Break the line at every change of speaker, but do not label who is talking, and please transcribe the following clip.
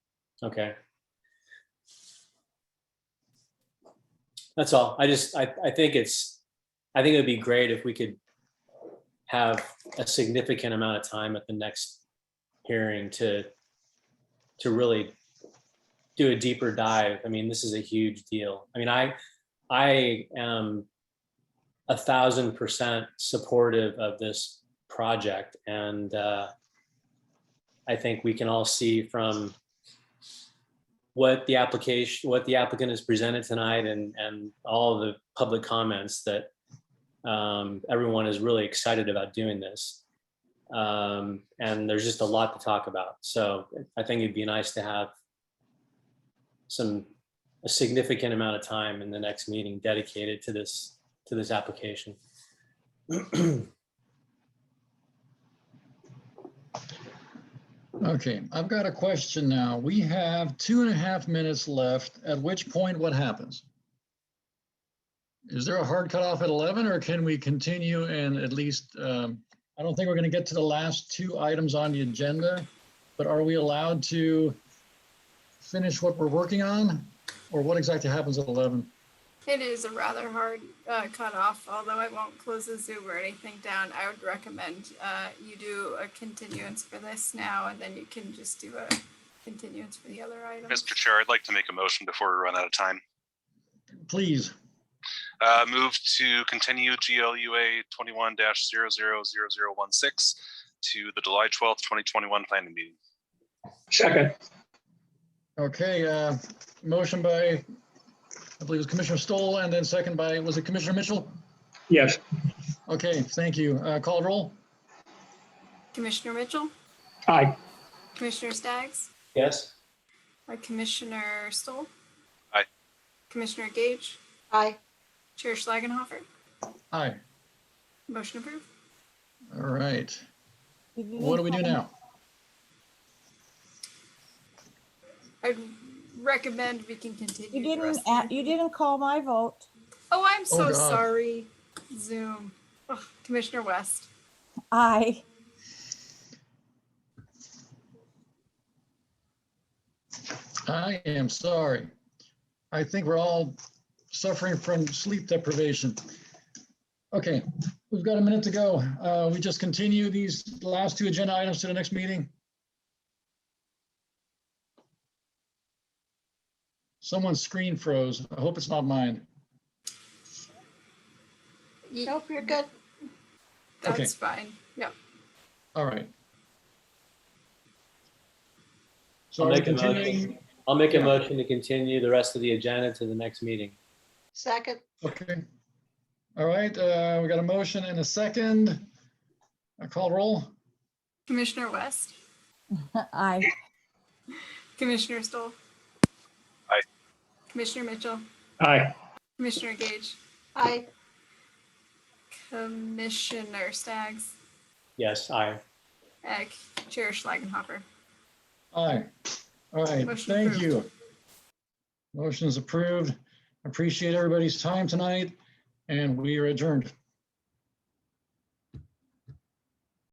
Okay. That's all. I just, I, I think it's, I think it would be great if we could have a significant amount of time at the next hearing to, to really do a deeper dive. I mean, this is a huge deal. I mean, I, I am a thousand percent supportive of this project and, uh, I think we can all see from what the application, what the applicant has presented tonight and, and all the public comments that um, everyone is really excited about doing this. Um, and there's just a lot to talk about. So I think it'd be nice to have some, a significant amount of time in the next meeting dedicated to this, to this application.
Okay, I've got a question now. We have two and a half minutes left, at which point what happens? Is there a hard cutoff at 11 or can we continue and at least, um, I don't think we're going to get to the last two items on the agenda, but are we allowed to finish what we're working on? Or what exactly happens at 11?
It is a rather hard uh, cutoff, although I won't close the Zoom or anything down. I would recommend uh, you do a continuance for this now, and then you can just do a continuance for the other item.
Mr. Chair, I'd like to make a motion before we run out of time.
Please,
Uh, Move to continue GLUA 21-000016 to the July 12th, 2021 planning meeting.
Second,
okay, uh, motion by, I believe it was Commissioner Stoll and then second by, was it Commissioner Mitchell?
yes,
Okay, thank you. Uh, Call roll?
Commissioner Mitchell,
aye,
Commissioner Staggs,
Yes?
uh, Commissioner Stoll.
Aye.
Commissioner Gage,
Aye.
Chair Schlagenhofer,
Aye.
motion approved.
All right. What do we do now?
I'd recommend we can
You
continue. the
didn't,
rest of
a-
the-
you didn't call my vote.
Oh, I'm
Oh,
so
God.
sorry, Zoom. Ugh, Commissioner West,
Aye.
I am sorry. I think we're all suffering from sleep deprivation. Okay, we've got a minute to go. Uh, We just continue these last two agenda items to the next meeting. Someone's screen froze. I hope it's not mine.
Ye-
Nope, you're good.
Okay.
that's fine. Yep.
All right. So
I'll
are we
make a motion.
continuing?
I'll make a
Yeah.
motion to continue the rest of the agenda to the next meeting.
Second.
Okay. All right, uh, we got a motion and a second. A call roll?
Commissioner West,
Aye.
Commissioner Stoll.
Aye.
Commissioner Mitchell,
aye,
Commissioner Gage,
Aye.
Commissioner Staggs,
Yes, I.
and Chair Schlagenhofer.
Aye. All right,
Motion
thank
approved.
you. Motion is approved. Appreciate everybody's time tonight, and we are adjourned.